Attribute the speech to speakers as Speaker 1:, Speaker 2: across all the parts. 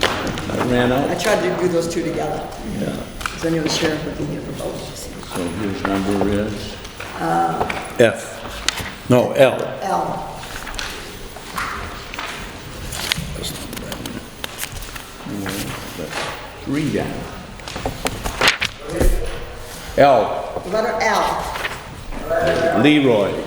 Speaker 1: I ran
Speaker 2: I
Speaker 1: out,
Speaker 2: tried to do those two together,
Speaker 1: yeah.
Speaker 2: because I knew the sheriff would be here for both.
Speaker 1: So his number is? Uh, F. No, L.
Speaker 2: L,
Speaker 1: Three down. L,
Speaker 2: the letter L.
Speaker 1: Leroy.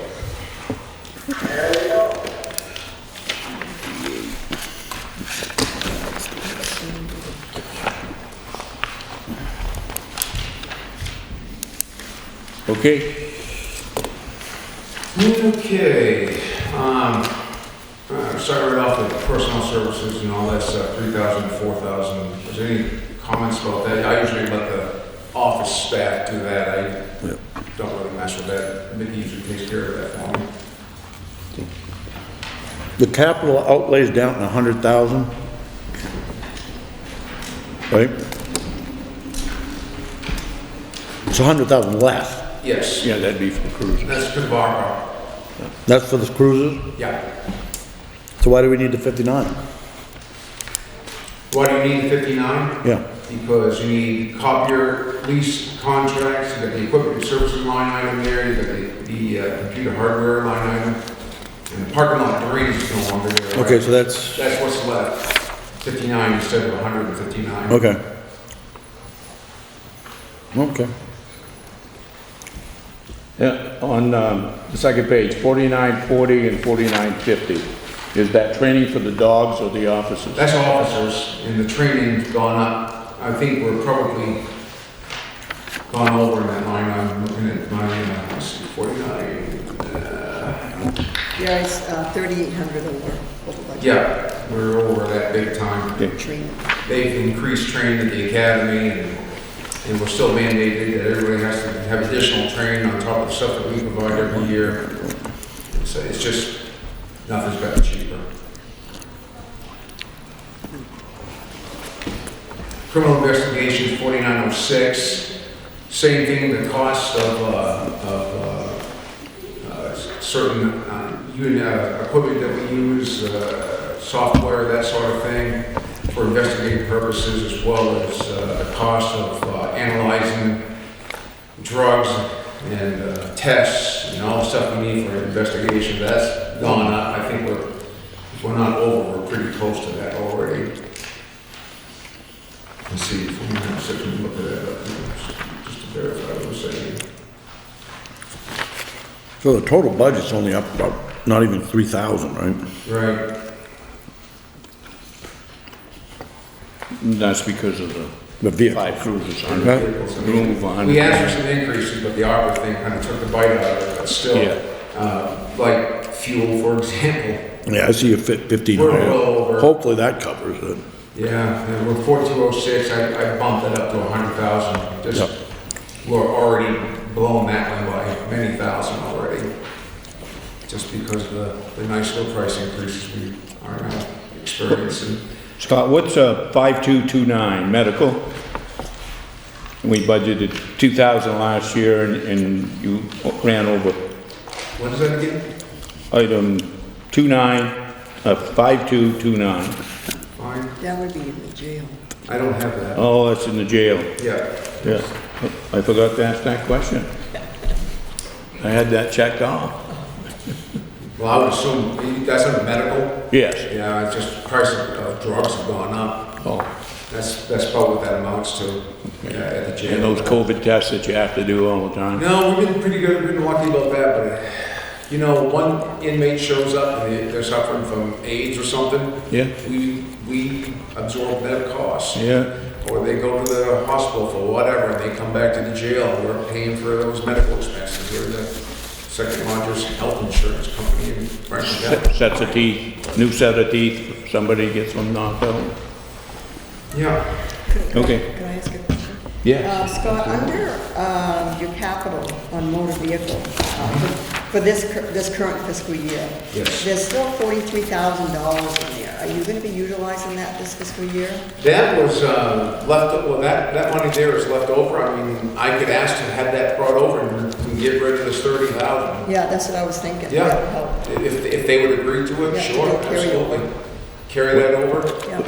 Speaker 1: Okay,
Speaker 3: Okay, um, uh, start right off with personal services and all that's uh, three thousand, four thousand. Is there any comments about that? I usually let the office staff do that. I don't really mess with that. Mickey usually takes care of that for me.
Speaker 4: The capital outlays down to a hundred thousand. Right? It's a hundred thousand less.
Speaker 3: Yes,
Speaker 1: yeah, that'd be for the cruiser.
Speaker 3: that's good, Barbara.
Speaker 4: That's for the cruisers.
Speaker 3: Yeah.
Speaker 4: So why do we need the fifty-nine?
Speaker 3: Why do you need fifty-nine?
Speaker 4: Yeah.
Speaker 3: Because you need copier lease contracts, you got the equipment and services line item there, you got the, the uh, computer hardware line item, and the parking lot three is no longer there. right?
Speaker 4: Okay, so that's,
Speaker 3: That's what's left, fifty-nine instead of hundred and fifty-nine.
Speaker 4: okay. Okay.
Speaker 1: Yeah, on um, the second page, 4940 and 4950. Is that training for the dogs or the officers?
Speaker 3: That's officers, and the training's gone up, I think we're probably gone over in that line, I'm looking at my, uh, let's see, forty-nine,
Speaker 2: Yeah, it's uh, thirty-eight hundred over, over budget.
Speaker 3: yeah, we're over that big time.
Speaker 2: Training.
Speaker 3: they've increased training at the academy, and, and we're still mandated that everybody has to have additional training on top of the stuff that we provide every year. So it's just, nothing's gotten cheaper. Criminal investigation, forty-nine oh six, same thing, the cost of, uh, of, uh, uh, certain, uh, unit, uh, equipment that we use, uh, software, that sort of thing for investigative purposes, as well as uh, the cost of uh, analyzing drugs and uh, tests and all the stuff we need for investigation. That's gone up. I think we're, if we're not over, we're pretty close to that already. Let's see, if we can have a second look at that, up, just to verify what I'm saying.
Speaker 4: So the total budget's only up about, not even three thousand, right?
Speaker 3: Right,
Speaker 1: That's because of
Speaker 4: The
Speaker 1: the
Speaker 4: vehicle.
Speaker 1: five cruisers,
Speaker 4: Huh?
Speaker 1: 100 vehicles, a room of 100.
Speaker 3: We asked for some increases, but the ARPA thing kind of took the bite out of it, but
Speaker 1: Yeah.
Speaker 3: still, uh, like fuel, for example,
Speaker 4: Yeah, I see you fit fifteen
Speaker 3: We're well over.
Speaker 4: Hopefully that covers it.
Speaker 3: Yeah, and we're forty-two oh six, I, I bumped it up to a hundred thousand, just, we're already blown that one by many thousand already. Just because of the, the nice little price increases we are now experiencing.
Speaker 1: Scott, what's uh, 5229, medical? We budgeted 2,000 last year and- and you ran over.
Speaker 3: What is that again?
Speaker 1: Item 29, uh, 5229.
Speaker 3: Fine,
Speaker 2: That would be in the jail.
Speaker 3: I don't have that,
Speaker 1: Oh, that's in the jail.
Speaker 3: yeah.
Speaker 1: Yeah, I forgot to ask that question. I had that checked off.
Speaker 3: Well, I would assume, that's under medical,
Speaker 1: Yes.
Speaker 3: yeah, it's just price of of drugs have gone up,
Speaker 1: Oh,
Speaker 3: that's, that's probably what that amounts to, yeah, at the jail.
Speaker 1: and those COVID tests that you have to do all the time.
Speaker 3: No, we've been pretty good, we've been lucky about that, but, you know, one inmate shows up and they- they're suffering from AIDS or something.
Speaker 1: Yeah.
Speaker 3: We, we absorb that cost.
Speaker 1: Yeah,
Speaker 3: Or they go to the hospital for whatever, and they come back to the jail, and we're paying for those medical expenses. We're the second largest health insurance company in Franklin County.
Speaker 1: set- sets of teeth, new set of teeth, if somebody gets them knocked out.
Speaker 3: Yeah,
Speaker 1: Okay.
Speaker 2: Can I ask a question?
Speaker 1: Yeah.
Speaker 2: Uh, Scott, under um, your capital on motor vehicle, uh, for- for this, cur- this current fiscal year.
Speaker 3: Yes.
Speaker 2: There's still forty-three thousand dollars in there. Are you gonna be utilizing that this fiscal year?
Speaker 3: that was, uh, left, well, that, that money there is left over. I mean, I could ask to have that brought over and and get rid of this thirty thousand.
Speaker 2: Yeah, that's what I was thinking. That would help.
Speaker 3: Yeah, if, if they would agree to it,
Speaker 2: Yeah,
Speaker 3: sure,
Speaker 2: they'll carry it.
Speaker 3: absolutely. Carry that over.
Speaker 2: Yeah.